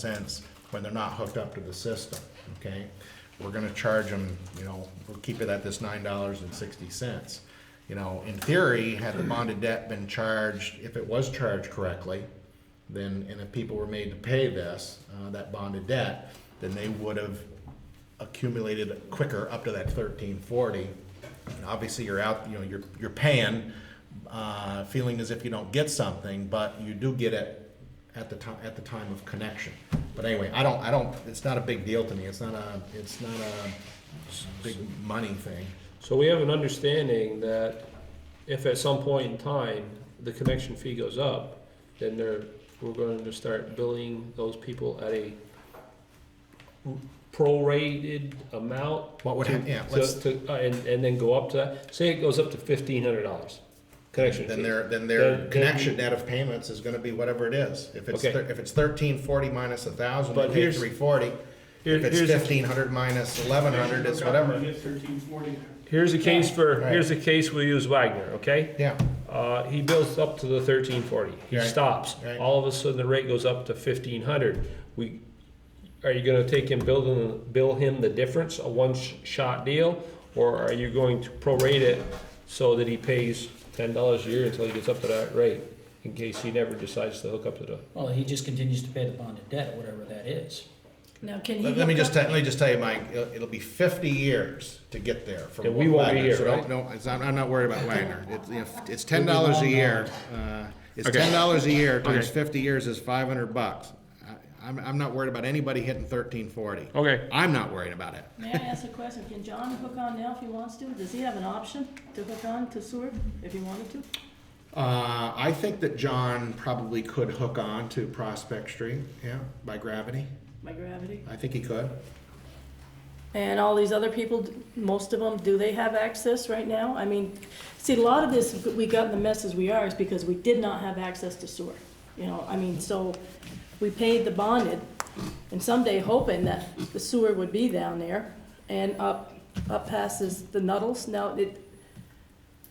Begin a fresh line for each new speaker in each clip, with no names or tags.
cents when they're not hooked up to the system, okay? We're gonna charge them, you know, we'll keep it at this nine dollars and sixty cents. You know, in theory, had the bonded debt been charged, if it was charged correctly, then, and if people were made to pay this, uh, that bonded debt, then they would have accumulated quicker up to that thirteen forty. And obviously, you're out, you know, you're, you're paying, uh, feeling as if you don't get something, but you do get it at the time, at the time of connection. But anyway, I don't, I don't, it's not a big deal to me, it's not a, it's not a big money thing.
So we have an understanding that if at some point in time, the connection fee goes up, then they're, we're going to start billing those people at a prorated amount.
What would happen, yeah,
To,
let's,
to, uh, and, and then go up to that, say it goes up to fifteen hundred dollars, connection
then
fee.
their, then
Then-
their
then-
connection net of payments is gonna be whatever it is. If it's,
Okay.
thir- if it's thirteen forty minus a thousand, they
But
pay
here's-
three forty.
Here-
If it's
here's, a-
fifteen hundred minus eleven hundred, it's whatever,
It's thirteen forty.
here's a case for,
Right.
here's a case we use Wagner, okay?
yeah.
Uh, he builds up to the thirteen forty, he
Right.
stops,
Right.
all of a sudden the rate goes up to fifteen hundred. We, are you gonna take him, build him, bill him the difference, a one-shot deal? Or are you going to prorate it so that he pays ten dollars a year until he gets up to that rate? In case he never decides to hook up to the,
Well, he just continues to pay the bonded debt, whatever that is.
Now, can he?
Let let me
hook
just,
up-
tell- let me just tell you, Mike, it'll, it'll be fifty years to get there from.
Yeah, we won't be
Wagner, so
here,
don't-
right?
No, it's- I'm, I'm not worried about Wagner. It's, you know, it's ten dollars a year. uh, It's ten dollars a year times
Okay.
fifty years is five hundred bucks. I- I'm, I'm not worried about anybody hitting thirteen forty.
okay,
I'm not worried about it.
May I ask a question? Can John hook on now if he wants to? Does he have an option to hook on to sewer if he wanted to?
Uh, I think that John probably could hook on to Prospect Street, yeah, by gravity.
By gravity?
I think he could.
And all these other people, most of them, do they have access right now? I mean, see, a lot of this, we got in the mess as we are, is because we did not have access to sewer. You know, I mean, so we paid the bonded, and someday hoping that the sewer would be down there and up, up passes the Nuddles. Now, it,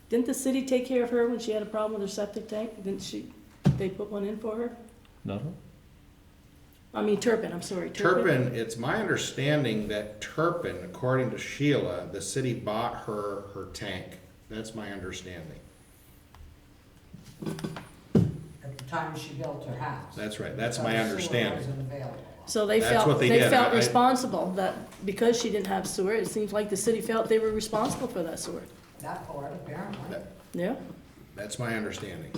didn't the city take care of her when she had a problem with her septic tank? Didn't she, they put one in for her?
no,
I mean, Turpin, I'm sorry, Turpin.
Turpin, it's my understanding that Turpin, according to Sheila, the city bought her her tank. That's my understanding.
at the time she built her house.
That's right, that's my
Because sewer
understanding.
wasn't available.
So they
That's what
felt,
they
they
did.
felt
I- I-
responsible that because she didn't have sewer, it seems like the city felt they were responsible for that sewer.
That part, apparently.
That-
Yeah?
That's my understanding.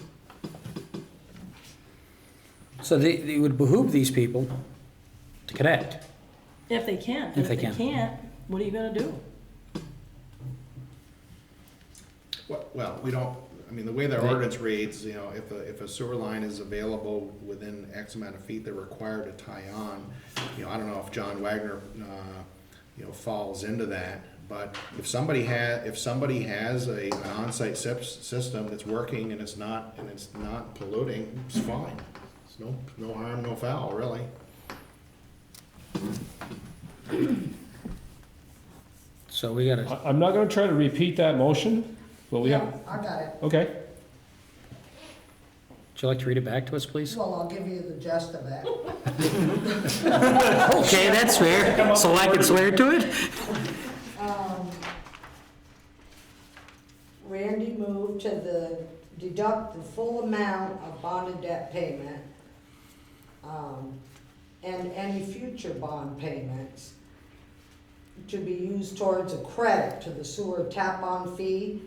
So they, it would behoove these people to connect.
If they can.
If they can.
If they can't, what are you gonna do?
Well- Well, we don't, I mean, the way their
They-
ordinance reads, you know, if a, if a sewer line is available within X amount of feet, they're required to tie on. You know, I don't know if John Wagner, uh, you know, falls into that, but if somebody has, if somebody has a, an onsite sip, system that's working and it's not, and it's not polluting, it's fine. It's no, no harm, no foul, really.
So we gotta,
I, I'm not gonna try to repeat that motion, but we have,
I got it.
okay.
would you like to read it back to us, please?
Well, I'll give you the gist of it.
Okay, that's fair. So I can swear to it?
Um, Randy moved to the, deduct the full amount of bonded debt payment um, and any future bond payments to be used towards a credit to the sewer tap-on fee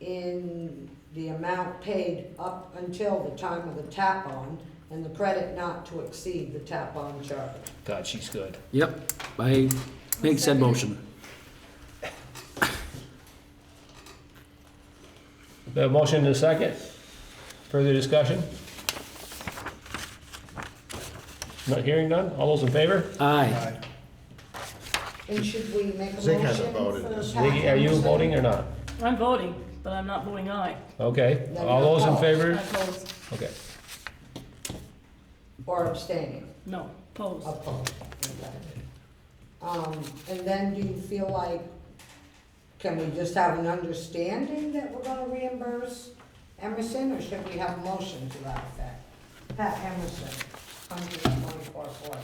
in the amount paid up until the time of the tap-on and the credit not to exceed the tap-on charge.
God, she's good.
Yep, I make said motion.
The motion in a second. Further discussion? Not hearing none? All those in favor?
Aye.
And should we make a motion for
Zig hasn't voted this.
tap-on?
Ziggy, are you voting or not?
I'm voting, but I'm not voting aye.
Okay,
No,
all those in
no.
I
favor?
oppose,
Okay.
Or abstaining?
no, oppose.
Opposed. Um, and then do you feel like, can we just have an understanding that we're gonna reimburse Emerson, or should we have a motion to that effect? Pat Emerson, hundred and twenty-four, four.